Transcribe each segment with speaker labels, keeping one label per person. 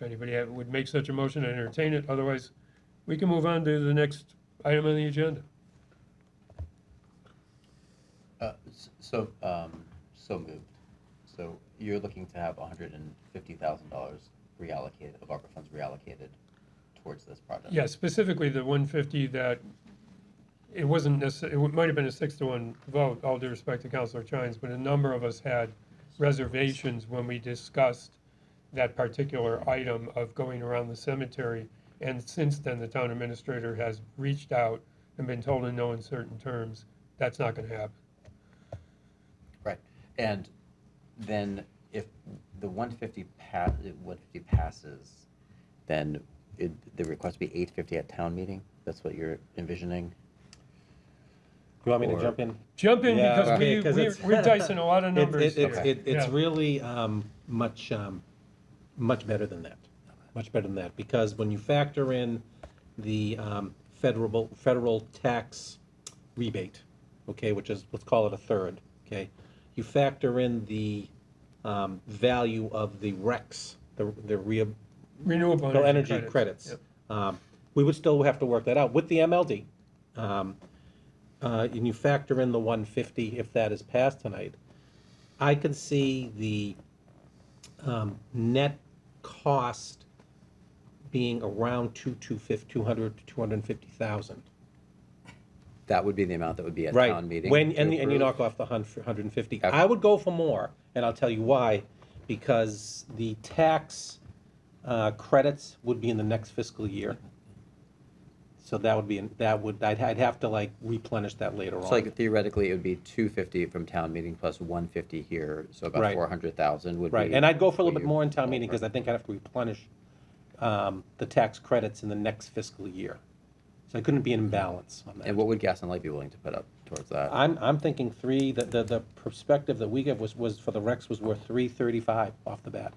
Speaker 1: If anybody had- would make such a motion, I entertain it. Otherwise, we can move on to the next item on the agenda.
Speaker 2: Uh, s- So, um, so moved. So you're looking to have hundred and fifty thousand dollars reallocated, of ARPA funds reallocated towards this project?
Speaker 1: Yeah, specifically the 150 that, it wasn't necessarily, it wa- might have been a six to one vote, all due respect to Counselor Chines, but a number of us had reservations when we discussed that particular item of going around the cemetery. And since then, the town administrator has reached out and been told in no uncertain terms, that's not going to happen.
Speaker 2: Right. And then if the one fifty pa, one fifty passes, then it, the request be eight fifty at town meeting? That's what you're envisioning?
Speaker 3: You want me
Speaker 2: Or-
Speaker 3: to jump in?
Speaker 1: Jump in
Speaker 3: Yeah,
Speaker 1: because
Speaker 3: okay,
Speaker 1: we,
Speaker 3: 'cause
Speaker 1: we're
Speaker 3: it's-
Speaker 1: we're dicing a lot of
Speaker 3: It-
Speaker 1: numbers
Speaker 3: it-
Speaker 1: here.
Speaker 3: It's, it- it's
Speaker 1: Yeah.
Speaker 3: really um, much, um, much better than that, much better than that, because when you factor in the um, federal, federal tax rebate, okay, which is, let's call it a third, okay? You factor in the um, value of the RECs, the, the rea-
Speaker 1: Renewable
Speaker 3: Bill energy credits.
Speaker 1: Yep.
Speaker 3: Um, We would still have to work that out with the MLD. Um, uh, And you factor in the 150 if that is passed tonight. I can see the um, net cost being around 2, 200 to 250,000.
Speaker 2: That would be the amount that would be at
Speaker 3: Right.
Speaker 2: town meeting?
Speaker 3: When,
Speaker 2: to
Speaker 3: and, and you
Speaker 2: approve?
Speaker 3: knock off the hun- 150.
Speaker 2: Okay.
Speaker 3: I would go for more, and I'll tell you why. Because the tax uh, credits would be in the next fiscal year. So that would be, in- that would, I'd, I'd have to like replenish that later on.
Speaker 2: So like theoretically, it would be two fifty from town meeting plus one fifty here, so about
Speaker 3: Right.
Speaker 2: four hundred thousand would be.
Speaker 3: Right, and I'd go for a
Speaker 2: what
Speaker 3: little bit
Speaker 2: you-
Speaker 3: more in town meeting, because I think I'd have to replenish um, the tax credits in the next fiscal year. So I couldn't be in balance on that.
Speaker 2: And what would Gas and Light be willing to put up towards that?
Speaker 3: I'm, I'm thinking three, the, the, the perspective that we gave was, was for the Rex was worth three thirty-five off the bat.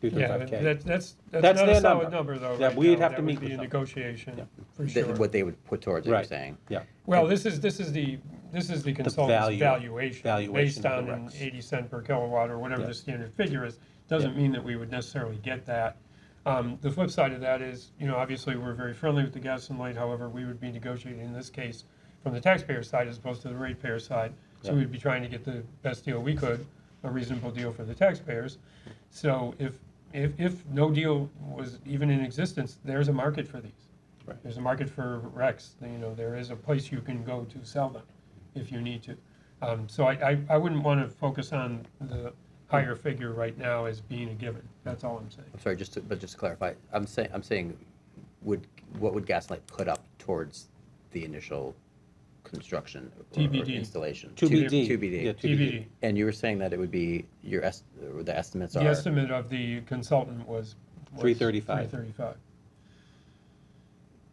Speaker 3: Three
Speaker 1: Yeah,
Speaker 3: thirty-five K.
Speaker 1: that- that's, that's
Speaker 3: That's
Speaker 1: not a
Speaker 3: their
Speaker 1: solid
Speaker 3: number.
Speaker 1: number, though,
Speaker 3: Yeah,
Speaker 1: right
Speaker 3: we'd
Speaker 1: now.
Speaker 3: have to meet
Speaker 1: That would be
Speaker 3: with
Speaker 1: a
Speaker 3: them.
Speaker 1: negotiation, for
Speaker 2: That-
Speaker 1: sure.
Speaker 2: What they would put towards it, you're
Speaker 3: Right.
Speaker 2: saying?
Speaker 3: Yeah,
Speaker 1: Well, this is, this is the, this is the consultant's
Speaker 3: value-
Speaker 1: valuation,
Speaker 3: valuation
Speaker 1: based
Speaker 3: of
Speaker 1: on
Speaker 3: the
Speaker 1: an
Speaker 3: RECs.
Speaker 1: eighty cent per kilowatt or whatever
Speaker 3: Yeah.
Speaker 1: the standard figure is. Doesn't mean that we would necessarily get that. Um, The flip side of that is, you know, obviously, we're very friendly with the gas and light, however, we would be negotiating in this case from the taxpayer side as opposed to the ratepayer side. So
Speaker 3: Yeah.
Speaker 1: we'd be trying to get the best deal we could, a reasonable deal for the taxpayers. So if, if, if no deal was even in existence, there's a market for these.
Speaker 3: Right.
Speaker 1: There's a market for Rex, you know, there is a place you can go to sell them if you need to. Um, so I, I, I wouldn't want to focus on the higher figure right now as being a given, that's all I'm saying.
Speaker 2: I'm sorry, just to, but just to clarify, I'm saying, I'm saying, would, what would Gaslight put up towards the initial construction? or- or
Speaker 1: TBD.
Speaker 2: Installation?
Speaker 3: To BD.
Speaker 2: To BD.
Speaker 3: Yeah, to
Speaker 1: TBD,
Speaker 2: And you were saying that it would be, your est, or the estimates
Speaker 1: the
Speaker 2: are?
Speaker 1: estimate of the consultant was. was
Speaker 3: 335.
Speaker 1: 335.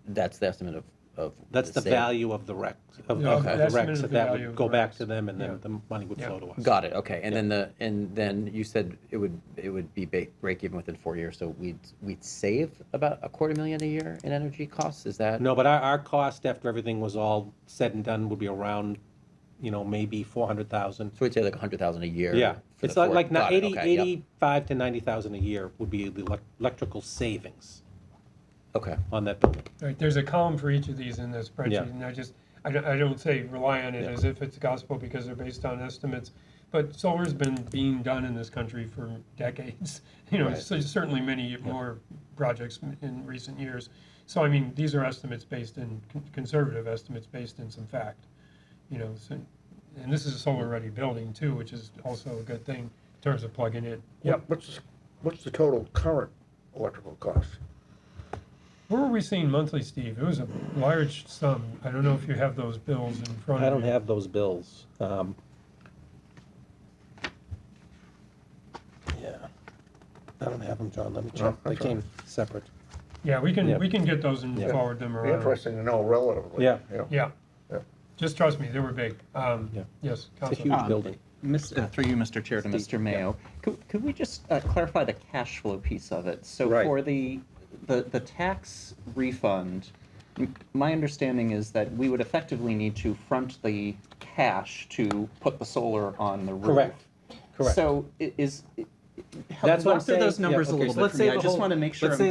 Speaker 2: That's the estimate of, of.
Speaker 3: that's the
Speaker 2: sale.
Speaker 3: value of the Rex, of,
Speaker 1: Yeah,
Speaker 3: of
Speaker 2: Okay.
Speaker 3: the
Speaker 1: that's
Speaker 3: Rex,
Speaker 1: minimum
Speaker 3: that that
Speaker 1: value of
Speaker 3: would go
Speaker 1: the
Speaker 3: back
Speaker 1: RECs.
Speaker 3: to them, and
Speaker 1: Yeah.
Speaker 3: then the money would
Speaker 1: Yeah.
Speaker 3: flow to us.
Speaker 2: Got it, okay, and then the, and then you said it would, it would be ba- break even within four years, so we'd, we'd save about a quarter million a year in energy costs, is that?
Speaker 3: No, but our, our cost after everything was all said and done would be around, you know, maybe four hundred thousand.
Speaker 2: So we'd say like a hundred thousand a year?
Speaker 3: Yeah,
Speaker 2: for
Speaker 3: it's
Speaker 2: the
Speaker 3: like,
Speaker 2: four-
Speaker 3: like ni-
Speaker 2: got it,
Speaker 3: eighty,
Speaker 2: okay, yep.
Speaker 3: eighty-five to ninety thousand a year would be the elec- electrical savings
Speaker 2: Okay,
Speaker 3: on that building.
Speaker 1: All right, there's a column for each of these in this
Speaker 3: Yeah.
Speaker 1: spreadsheet, and I just, I don't, I don't say rely on it
Speaker 3: Yeah.
Speaker 1: as if it's gospel because they're based on estimates. But solar's been being done in this country for decades, you know,
Speaker 2: Right.
Speaker 1: so certainly many more projects m- in recent years. So I mean, these are estimates based in, con- conservative estimates based in some fact, you know, so, and this is a solar-ready building too, which is also a good thing in terms of plugging it. Yep,
Speaker 4: What's, what's the total current electrical cost?
Speaker 1: where were we seeing monthly, Steve? It was a large sum. I don't know if you have those bills in front of you.
Speaker 3: I don't have those bills. Um, Yeah, I don't have them, John, let me
Speaker 4: No,
Speaker 3: check. They
Speaker 4: that's all
Speaker 3: came separate.
Speaker 1: Yeah, we can,
Speaker 3: Yeah.
Speaker 1: we can get those and
Speaker 3: Yeah.
Speaker 1: forward them
Speaker 4: Be
Speaker 1: around.
Speaker 4: interesting to know relatively.
Speaker 3: Yeah.
Speaker 1: Uh, Yeah.
Speaker 4: Yeah.
Speaker 1: Just trust me, they were big. Um,
Speaker 3: Yeah.
Speaker 1: Yes,
Speaker 3: It's a
Speaker 1: Counselor.
Speaker 3: huge
Speaker 5: Um,
Speaker 3: building.
Speaker 5: Mr. Through you, Mr. Chair, to Mr. Mayo. Could, could we just uh, clarify the cash flow piece of it? So
Speaker 3: Right.
Speaker 5: for the, the, the tax refund, m- my understanding is that we would effectively need to front the cash to put the solar on the roof.
Speaker 3: Correct, correct.
Speaker 5: So i- is, i- help
Speaker 3: That's what I'm
Speaker 5: walk through those
Speaker 3: saying. Yeah,
Speaker 5: numbers a
Speaker 3: okay,
Speaker 5: little
Speaker 3: so
Speaker 5: bit
Speaker 3: let's
Speaker 5: for
Speaker 3: say
Speaker 5: me. I
Speaker 3: the
Speaker 5: just
Speaker 3: whole-
Speaker 5: want to make sure
Speaker 3: let's
Speaker 5: I'm
Speaker 3: say